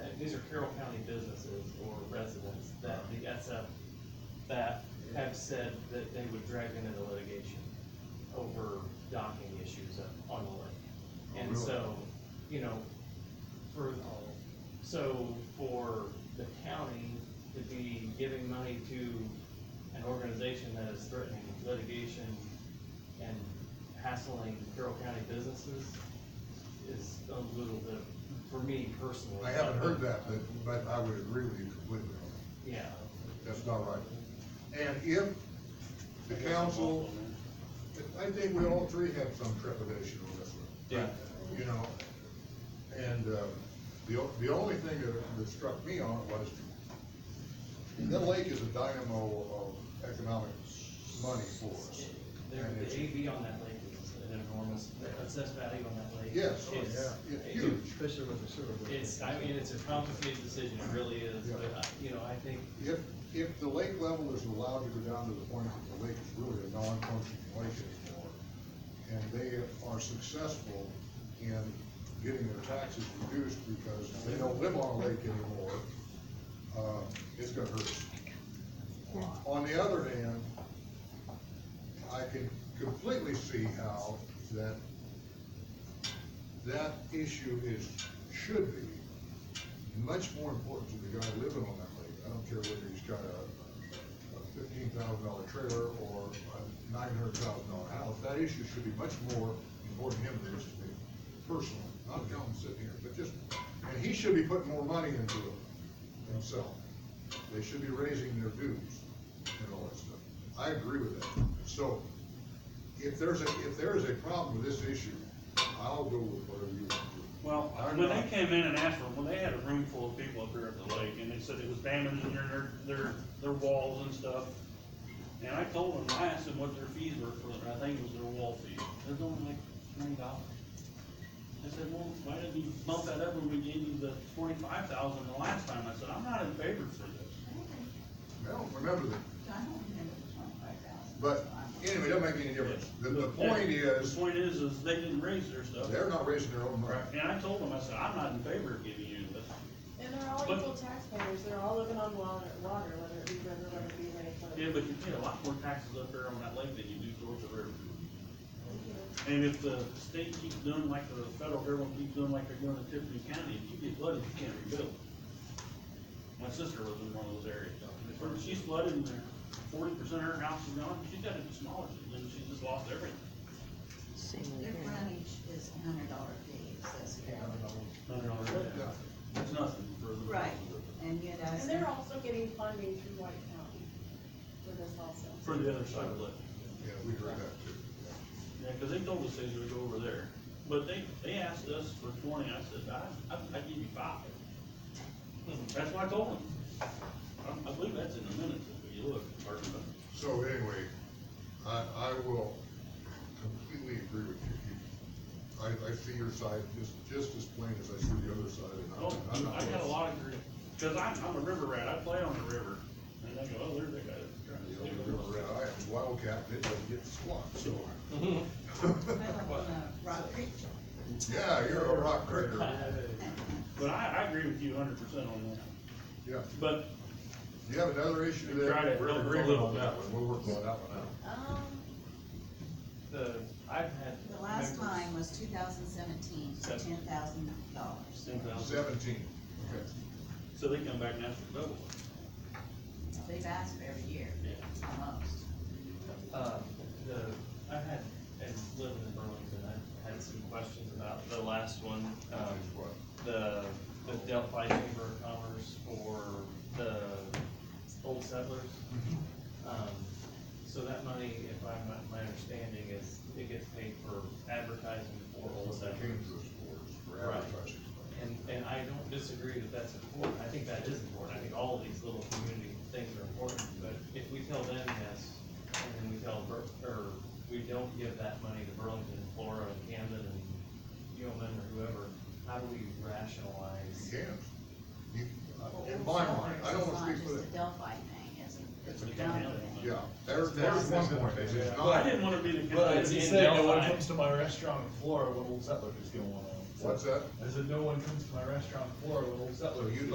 these are Carroll County businesses or residents that the SF, that have said that they would drag them into litigation over docking issues on the lake. And so, you know, for, so for the county to be giving money to an organization that is threatening litigation and hassling Carroll County businesses is a little bit, for me personally. I haven't heard that, but, but I would agree with you completely on that. Yeah, That's not right. And if the council, I think we all three had some trepidation on this one. Yeah. You know, and, uh, the, o- the only thing that, that struck me on it was that lake is a dynamo of economic money for us. there, And the it's- AV on that lake is an enormous, the assessed value on that lake. Yes, oh, is- yeah, it's it- huge. Especially with the sewer. It's, I mean, it's a complicated decision, it really is, Yeah. but, I- you know, I think, If, if the lake level is allowed to go down to the point that the lake is really a non-functioning lake anymore, and they are successful in getting their taxes reduced because they don't live on a lake anymore, uh, it's gonna hurt. us. On the other hand, I can completely see how that, that issue is, should be much more important to the guy living on that lake. I don't care whether he's got a a fifteen thousand dollar trailer or a nine hundred thousand dollar house. That issue should be much more important to him than it is to me personally. Not John sitting here, but just, and he should be putting more money into it himself. They should be raising their dues and all that stuff. I agree with that. So if there's a, if there is a problem with this issue, I'll go with whatever you want to do. Well, I'm when they not- came in and asked for, well, they had a room full of people up here at the lake, and they said it was damaging their, their, their, their walls and stuff. And I told them, I asked them what their fees were for, it, and I think it was their wall fee, they're going like twenty dollars. I said, well, why didn't you bump that up when we gave you the forty-five thousand the last time? I said, I'm not in favor for this. I don't remember that I don't remember the twenty-five thousand. But anyway, it doesn't make any difference. The, the point is, The point is, is they didn't raise their stuff. they're not raising their own money. And I told them, I said, I'm not in favor of giving you this. And they're all But- equal taxpayers, they're all living on water, water, whether it be river, whether it be lake, whether Yeah, it but you pay a lot more taxes up there on that lake than you do towards the river. be. And if the state keeps doing like the federal government keeps doing like they're doing in Tiffany County, if you get flooded, you can't rebuild. My sister lives in one of those areas. When she's flooded and forty percent of her house is gone, she's got to demolished it, and she just lost everything. Their frontage is a hundred dollar fee, it says here. Hundred dollars a day. Yeah. That's nothing for the. Right, and yet I. And they're also getting funding through White County for this also. For the other side of the lake. Yeah, we heard that too. Yeah, cause they told us they would go over there, but they, they asked us for twenty, I said, I, I, I give you five. Hmm, That's what I told them. I, I believe that's in the minutes, if you look, or, uh, So anyway, I, I will completely agree with you. You- I, I see your side just, just as plain as I see the other side and oh, I'm- I'm not. I got a lot of grief, cause I'm, I'm a river rat, I play on the river, and they go, oh, there's that guy that's trying to You steal know, the the river. river rat, I am wildcat, and it doesn't get squat, so. I live on a uh, Rock Creek. Yeah, you're a rock critter. But I, I agree with you hundred percent on that, Yeah. but You have another issue We tried that it we're real agreeing quick. on that one. We'll work on that one out. Um, The, I've had. the last members- time was two thousand seventeen, for Seven. ten thousand dollars. ten thousand, Seventeen. Okay. so they come back and ask for double, They've asked for every year, yeah. almost. Uh, the, I had, and living in Burlington, I had some questions about the last one, um, What? the, the Delphi Chamber of Commerce for the old settlers. Um, so that money, if I, my, my understanding is, it gets paid for advertising for old They settlers. came to us for, for Right. advertising. And, and I don't disagree that that's important, I think that is important, I think all of these little community things are important, but if we tell them yes, and then we tell Bur- or we don't give that money to Burlington, Flora, and Camden, and UMN, or whoever, how do we rationalize? You can't. You, in my mind, I don't wanna speak for them. It's not just a Delphi thing, it's It's a. a predominant county thing. Yeah, there, there's one point, it's Yeah. Well, I not, didn't wanna be the. But It's as you in said, no one Delphi. comes to my restaurant in Florida when Old Settler is going on. what's that? I said, no one comes to my restaurant in Florida when Old So Settler is you